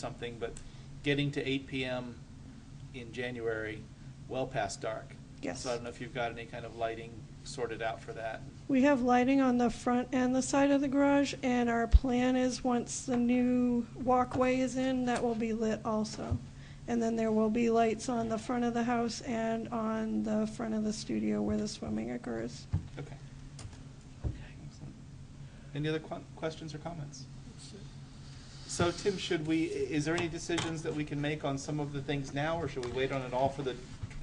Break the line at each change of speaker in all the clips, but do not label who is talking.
something, but getting to eight PM in January, well past dark.
Yes.
So I don't know if you've got any kind of lighting sorted out for that.
We have lighting on the front and the side of the garage, and our plan is, once the new walkway is in, that will be lit also. And then there will be lights on the front of the house and on the front of the studio where the swimming occurs.
Okay. Excellent. Any other que- questions or comments? So Tim, should we, i- is there any decisions that we can make on some of the things now, or should we wait on it all for the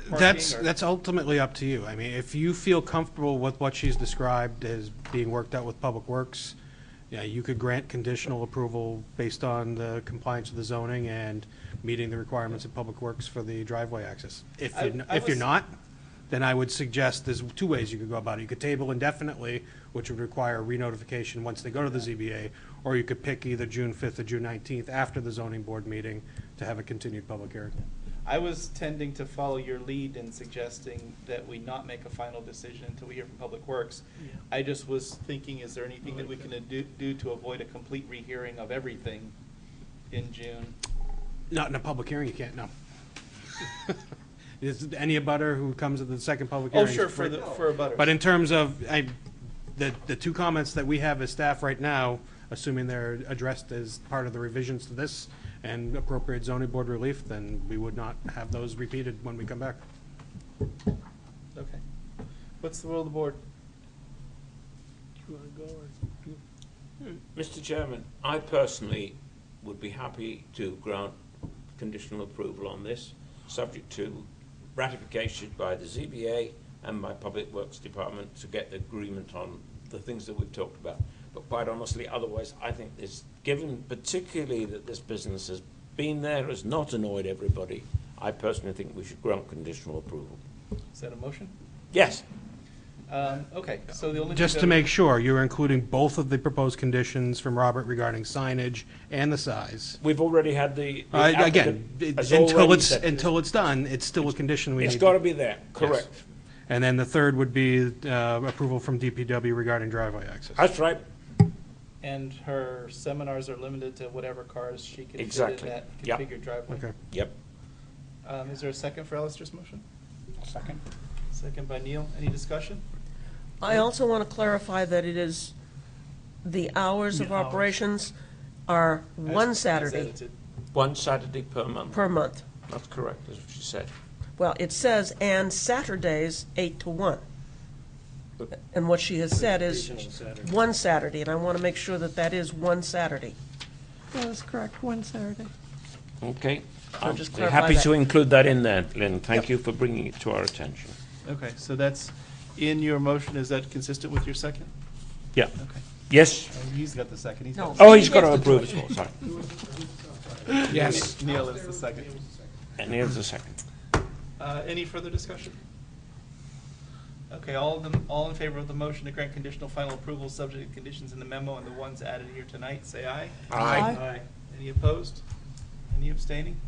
parking?
That's,
or-
that's ultimately up to you. I mean, if you feel comfortable with what she's described as being worked out with Public Works, yeah, you could grant conditional approval based on the compliance with the zoning and meeting the requirements of Public Works for the driveway access. If
I-
you're, n-
I
if you're
was-
not, then I would suggest there's two ways you could go about it. You could table indefinitely, which would require re-notification once they go to the ZBA, or you could pick either June 5th or June 19th after the zoning board meeting to have a continued public hearing.
I was tending to follow your lead in suggesting that we not make a final decision until we hear from Public Works. I just was thinking, is there anything that we can do, do to avoid a complete rehearing of everything in June?
Not in a public hearing, you can't, no. Is any abutter who comes at the second public
Oh,
hearing?
sure, for the, for a butter.
But in terms of, I, the, the two comments that we have as staff right now, assuming they're addressed as part of the revisions to this and appropriate zoning board relief, then we would not have those repeated when we come back.
Okay. What's the will of the board?
Mr. Chairman, I personally would be happy to grant conditional approval on this, subject to ratification by the ZBA and by Public Works Department to get the agreement on the things that we've talked about. But quite honestly, otherwise, I think this, given particularly that this business has been there, has not annoyed everybody, I personally think we should grant conditional approval.
Is that a motion?
Yes,
Um, okay, so the only. thing
Just
that
to
we-
make sure, you're including both of the proposed conditions from Robert regarding signage and the size.
we've already had the. the
Uh, Again,
applicant
it-
has
until
already
it's,
said-
until it's done, it's still a condition we need.
It's
to-
got to be there, correct.
And then the third would be uh, approval from DPW regarding driveway access.
That's right.
And her seminars are limited to whatever cars she can fit in
Exactly.
that
Yep.
configured driveway.
Okay.
Yep.
Um, is there a second for Alistair's motion? Second. Second by Neil. Any discussion?
I also want to clarify that it is, the hours of
The hours.
operations are
As-
one
as
Saturday
edited.
One Saturday per month.
per month.
That's correct, that's what she said.
Well, it says, and Saturdays, eight to one. And what she has said is one Saturday, and I want to make sure that that is one Saturday.
That is correct, one Saturday.
Okay.
I'll
I'm
just clarify
happy
that.
to include that in there, Lynn. Thank you for bringing it to our attention.
Okay, so that's in your motion. Is that consistent with your second?
Yeah,
Okay.
yes.
Oh, he's got the second. He's
No.
got
Oh, he's got to approve as well, sorry.
Yes. Neil is the second.
And here's the second.
Uh, any further discussion? Okay, all of them, all in favor of the motion to grant conditional final approval, subject to conditions in the memo and the ones added here tonight, say aye.
Aye. Aye.
Any opposed? Any abstaining?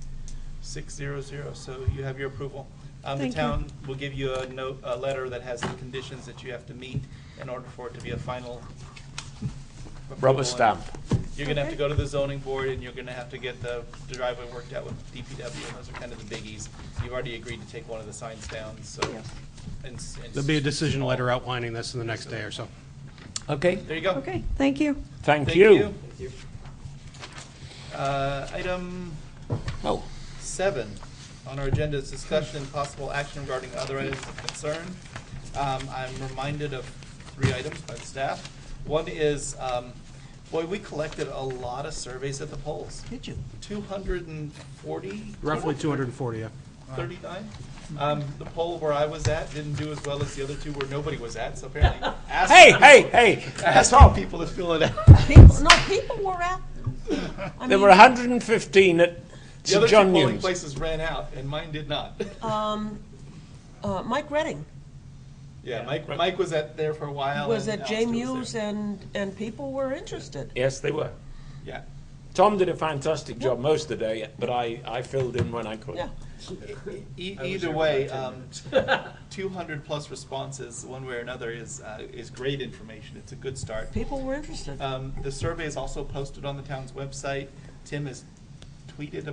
Six zero zero, so you have your approval. Um, the
Thank you.
town will give you a note, a letter that has the conditions that you have to meet in order for it to be a final. approval.
Rubber stamp.
You're gonna have to go to the zoning board and you're gonna have to get the driveway worked out with DPW and those are kind of the biggies. You've already agreed to take one of the signs down, so.
Yes.
and s- and
There'll be a
s-
decision letter outlining this in the next day or so.
Okay,
There you go.
Okay, thank you.
thank you.
Uh, item
Oh,
seven on our agenda is discussion and possible action regarding other items of concern. Um, I'm reminded of three items by the staff. One is, um, boy, we collected a lot of surveys at the polls. Did you? Two hundred and forty?
Roughly 240, yeah.
39. Um, the poll where I was at didn't do as well as the other two where nobody was at, so apparently asking
hey,
people,
hey, hey, that's
asking
all.
people to fill it out.
People, no, people were at, I
There were
mean,
115 at
The other
St.
two
John
polling
Newman's.
places ran out, and mine did not.
um, uh, Mike Redding
yeah, Mike
Right.
Mike was at there for a while.
was
and
at J
Alistair was
Muse
there.
and, and people were interested.
Yes, they were.
Yeah.
Tom did a fantastic job most of the day, but I, I filled in when I could.
Yeah.
E- either way, um, 200 plus responses, one way or another, is uh, is great information. It's a good start.
People were interested.
Um, the survey is also posted on the town's website. Tim has completed